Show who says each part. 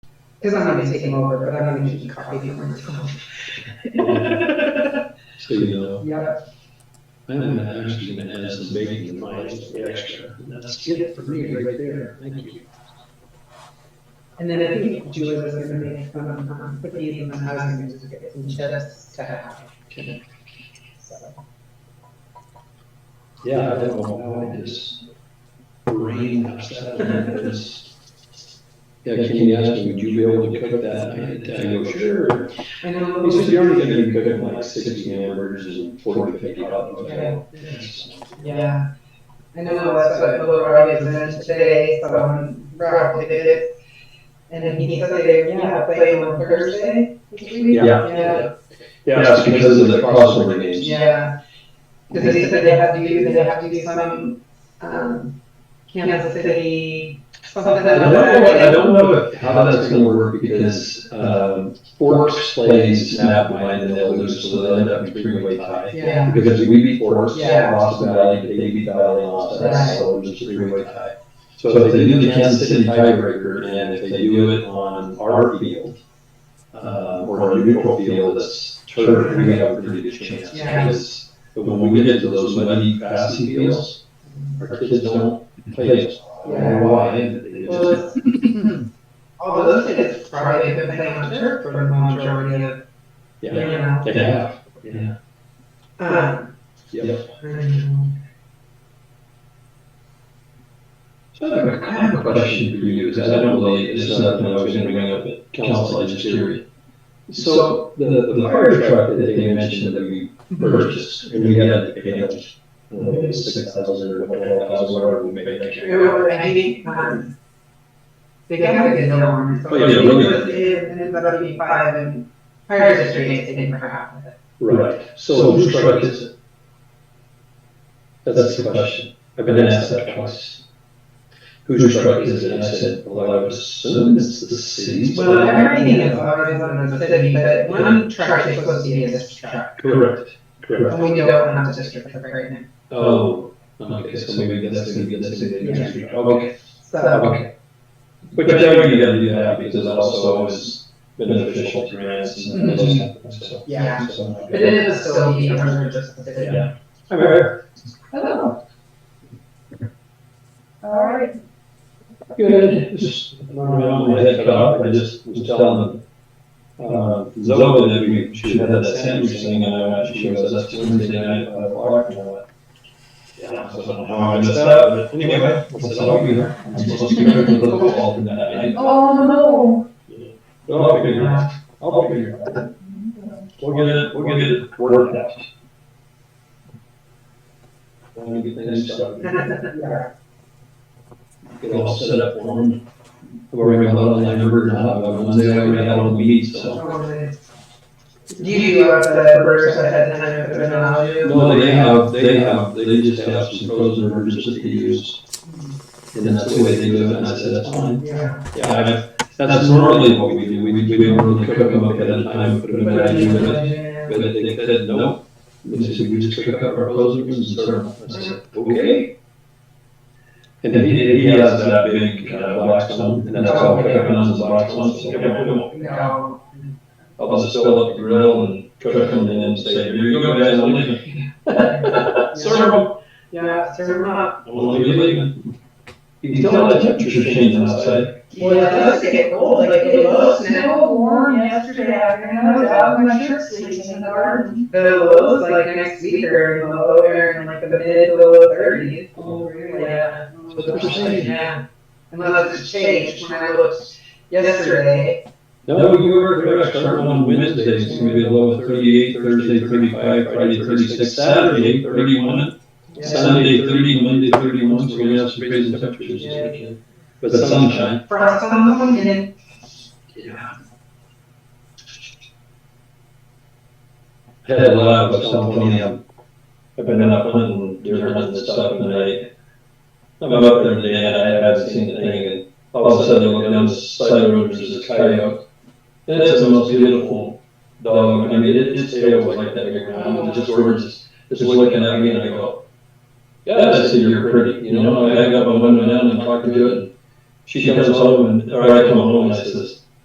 Speaker 1: Because I'm gonna take him over, but I'm gonna give you coffee if you want to.
Speaker 2: So, you know,
Speaker 1: Yep,
Speaker 2: I haven't actually been had some bacon in mine, it's extra. and That's it for me right there. Thank you.
Speaker 1: and then I think Julie was gonna make some, um, cookies and then I was gonna just get some chips to have. So,
Speaker 2: Yeah, I don't know how it is. Brain upset. It's- Yeah, Kenny asked me, would you be able to cook that? I had to
Speaker 1: Oh,
Speaker 2: go, sure.
Speaker 1: I know.
Speaker 2: He said, you're only gonna be cooking like sixty hamburgers and forty to fifty dollars.
Speaker 1: Yeah.
Speaker 2: Yes.
Speaker 1: Yeah. I know that's what the little guy is in today, so um, Rob did it. And then he said they, yeah, play on Thursday. this week.
Speaker 2: Yeah.
Speaker 1: Yeah.
Speaker 2: Yeah, it's because of the crossover games.
Speaker 1: Yeah. Because they said they have to do, they have to do some, um, Kansas City, something.
Speaker 2: I don't know, I don't know if- how that's gonna work because, um, Forks plays Snap Mine and they'll lose, so they'll end up in three-way tie.
Speaker 1: Yeah.
Speaker 2: Because if we beat Forks,
Speaker 1: Yeah.
Speaker 2: Austin Valley, they beat Valley, Austin,
Speaker 1: Right.
Speaker 2: so it's a three-way tie. So if they do the Kansas City tiebreaker and if they do it on our field, uh, or a neutral field that's turf, we have a pretty good chance.
Speaker 1: Yeah.
Speaker 2: Because when we get to those muddy passing fields, our kids don't play us. I don't know why, they just-
Speaker 1: Well, it's- Although those kids probably have been playing on turf for the majority of, you
Speaker 2: Yeah.
Speaker 1: know.
Speaker 2: They have. Yeah.
Speaker 1: Um,
Speaker 2: Yep.
Speaker 1: I don't know.
Speaker 2: So I have a- I have a question for you, because I don't really, this is something I was gonna bring up at council, I just hear it. So the, the fire truck that they mentioned that we purchased, and we had to pay like six thousand or twelve thousand, whatever we made that
Speaker 1: It
Speaker 2: year.
Speaker 1: was, I think, um, they got a good deal on it. So
Speaker 2: Oh, yeah,
Speaker 1: it
Speaker 2: really.
Speaker 1: was- It ended up being five and fire district, they didn't half of it.
Speaker 2: Right, so whose truck is it? That's the question, I've been asked that twice. Whose truck is it? And I said, well, I would assume it's the city's. but-
Speaker 1: Well, everything is always on the city, but one truck is supposed to be a district truck.
Speaker 2: Correct, correct.
Speaker 1: And we don't have a district truck right now.
Speaker 2: Oh, okay, so maybe that's gonna be, that's gonna be interesting, okay,
Speaker 1: So,
Speaker 2: okay. But I know you gotta do that, because that also is beneficial to grants and those kind of things, so.
Speaker 1: yeah,
Speaker 2: So I'm not
Speaker 1: but it
Speaker 2: gonna-
Speaker 1: is still the under just the city.
Speaker 2: Yeah. I'm aware.
Speaker 1: Hello. All right.
Speaker 2: Good, it's just, I don't know, my head cut off, I just was telling them, uh, Zoe that we should have had that sandwich thing, and I went, she goes, that's Wednesday night, at five o'clock, and I went, yeah, so I don't know how I missed that, but anyway, I said, I'll be there, I'm supposed to be there for the football tonight, and I
Speaker 1: Oh, no.
Speaker 2: I'll figure it out. I'll figure it out. We'll get it, we'll get it worked out. We'll get things started,
Speaker 1: Yeah.
Speaker 2: get all set up for them. I've already got a lot of line over now, but Wednesday I already had all the meetings, so.
Speaker 1: Do you have the burgers ahead of time if they're not all you?
Speaker 2: No, they have, they have, they just have some frozen burgers that they use. And that's the way they do it, and I said, that's fine.
Speaker 1: Yeah.
Speaker 2: Yeah, I- that's normally what we do, we, we we don't really cook them up ahead of time, put them in a menu, and
Speaker 1: Yeah.
Speaker 2: But they said, no, they said, we just took out our closers and started. I said, okay. And then he, he has that big uh, black one, and that's all I cook on is black one, so I
Speaker 1: No.
Speaker 2: will just fill up the grill and cook them and then say, here you go guys, I'm leaving. Serve them,
Speaker 1: Yeah, serve 'em up.
Speaker 2: I'm only leaving. You can tell the temperature's changing outside.
Speaker 1: Well, it does get cold, like it was now.
Speaker 3: warm yesterday afternoon, I was out in my shirt sleeves in the garden.
Speaker 1: The lows, like next week are in the low, they're in like the mid, to low thirties.
Speaker 2: Oh,
Speaker 1: really? Yeah.
Speaker 2: But they're saying-
Speaker 1: Yeah. Unless it's changed, when I looked yesterday,
Speaker 2: No, you were correct, starting on Wednesday, it's gonna be a low of thirty-eight, Thursday thirty-five, Friday thirty-six, Saturday thirty-one,
Speaker 1: yeah,
Speaker 2: Sunday thirty, Monday thirty-one, so we're gonna have some crazy temperatures this weekend. But sunshine.
Speaker 1: frost on the one end.
Speaker 2: Yeah. Had a lot of California. I've been up hunting, deer hunting and stuff, and I, I'm up there today, and I haven't seen the thing, and all of a sudden, I look down the side of the road, there's this coyote. And it's the most beautiful dog, I mean, it, its tail was like that, big round, and just gorgeous, just looking at me, and I go, yeah, I see you're pretty, you know, I hang up my window down and talk to it, and she comes home, and, or I come home, and I says,